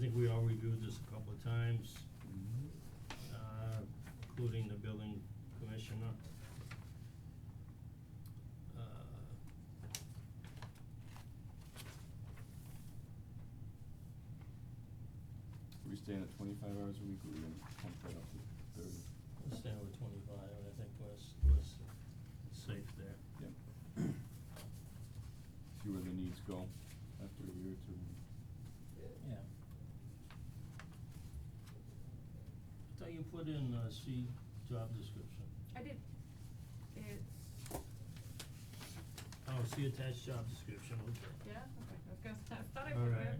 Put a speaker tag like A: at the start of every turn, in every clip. A: think we all reviewed this a couple of times, uh, including the building commissioner. Uh,
B: Are we staying at twenty-five hours a week, or are we gonna pump that up to thirty?
A: let's stand with twenty-five, I think was, was safe there.
B: Yep. See where the needs go after a year or two.
A: Yeah. I thought you put in, uh, C, job description.
C: I did, it's,
A: Oh, see attached job description, okay.
C: yeah, okay, I was gonna, say- I thought I
A: All
C: put it.
A: right.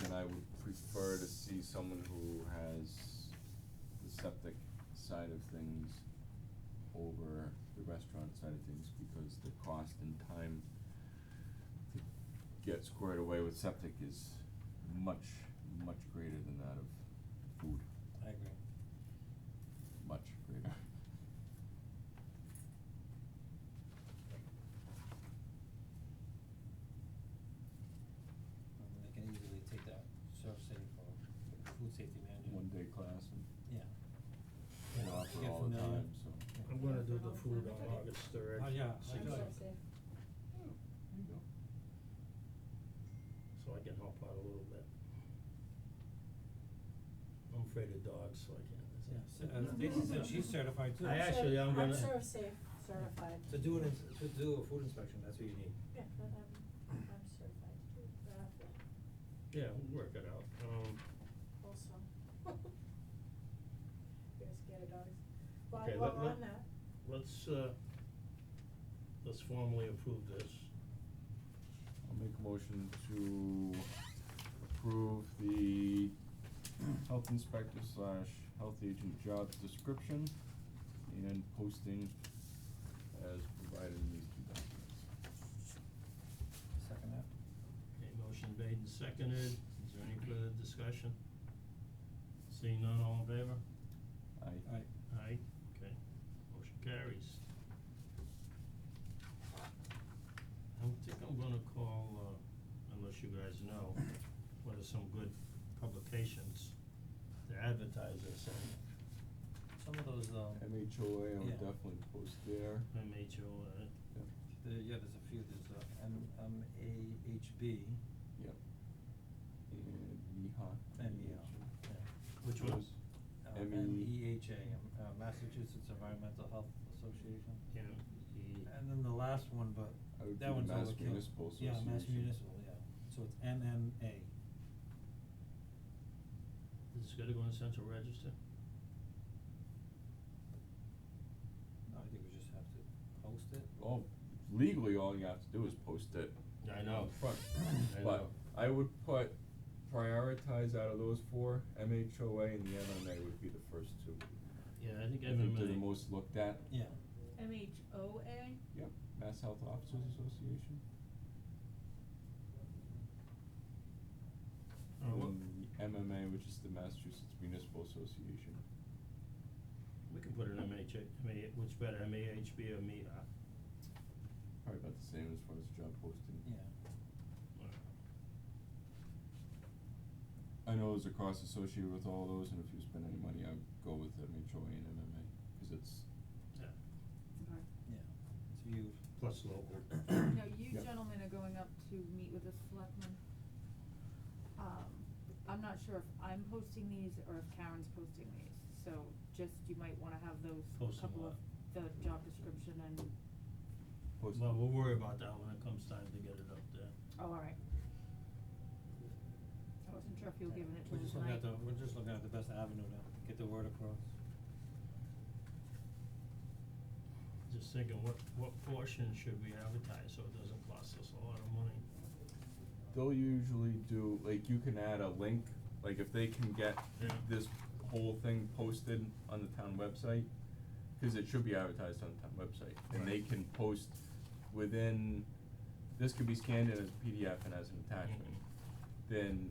B: Again, I would prefer to see someone who has the septic side of things over the restaurant side of things, because the cost and time to get squared away with septic is much, much greater than that of food,
D: I agree.
B: much greater.
D: Um, they can easily take that serve safe or food safety manager.
B: One day class and
D: Yeah.
B: they
D: Yeah,
B: offer
D: you get
B: all the
D: familiar.
B: time, so.
D: Yeah.
A: I'm gonna do the food on August third.
D: Oh, yeah, I
A: so-
D: got it.
B: Oh, there you go.
A: So I can help out a little bit. I'm afraid of dogs, so I
D: Yeah,
A: can't.
D: so, uh, Stacy said she's certified too.
A: I actually, uh, I'm gonna-
E: I'm sure safe certified.
D: To do an, ins- to do a food inspection, that's what you need.
E: Yeah, but I'm, I'm certified too, but I have to
A: Yeah, we'll work it out, um,
E: also. You're scared of dogs. Well,
A: Okay,
E: while
A: let-
E: we're
A: let-
E: on that,
A: let's, uh, let's formally approve this.
B: I'll make a motion to approve the health inspector slash health agent job description and posting as provided in these two documents.
D: Second that.
A: Okay, motion made and seconded, is there any further discussion? Seeing none, all in favor?
B: I.
D: Alright,
A: Aye, okay, motion carries. I don't think I'm gonna call, uh, unless you guys know, what are some good publications to advertise this in,
D: some of those, um,
B: MHOA, I
D: Yeah.
B: would definitely post there.
A: MHO, uh,
B: Yep,
D: the, yeah, there's a few, there's uh M, M A H B
B: yep. And MEHA.
D: and, yeah, E yeah.
A: Which one?
D: Uh,
B: M E-
D: M E H A, um, uh, Massachusetts Environmental Health Association.
A: Yeah,
D: And then the last one, but
B: I would
D: that
B: do
D: one's overkill.
B: Mass Municipal
D: Yeah, Mass
B: Association.
D: Municipal, yeah, so it's M M A.
A: the, this is gonna go in central register?
D: I think we just have to post it.
B: Well, legally, all you have to do is post it.
A: I know.
B: out Front,
A: I know.
B: but I would put, prioritize out of those four, MHOA and the MMA would be the first two.
A: Yeah, I think
B: I think they're the
A: MMA
B: most looked at.
D: Yeah,
C: M H O A?
B: Yep, Mass Health Officers Association.
A: Oh, what-
B: And the MMA, which is the Massachusetts Municipal Association.
A: we can put an MHA, MA, which better, MAHB or uh, MEHA?
B: Probably about the same as far as job posting.
D: yeah.
B: I know there's a cost associated with all those, and if you spend any money, I'd go with MHOA and MMA, cause it's,
A: Yeah,
D: Yeah, it's viewed.
A: plus local.
C: No, you
B: Yep.
C: gentlemen are going up to meet with the selectmen. Um, I'm not sure if I'm posting these or if Karen's posting these, so just, you might wanna have those,
A: Post 'em
C: couple of,
A: up.
C: the job description and, oh,
B: posted.
A: Well, we'll worry about that when it comes time to get it up there.
C: oh, alright. I wasn't sure if you were giving it to
D: We're just
C: them
D: looking
C: tonight.
D: at the, we're just looking at the best avenue to get the word across.
A: Just thinking, what, what portion should we advertise so it doesn't cost us a lot of money?
B: They'll usually do, like, you can add a link, like, if they can get
A: Yeah.
B: this whole thing posted on the town website, cause it should be advertised on the town website, and they
A: Right.
B: can post within, this could be scanned in as a PDF and as an attachment.
A: Mhm.
B: Then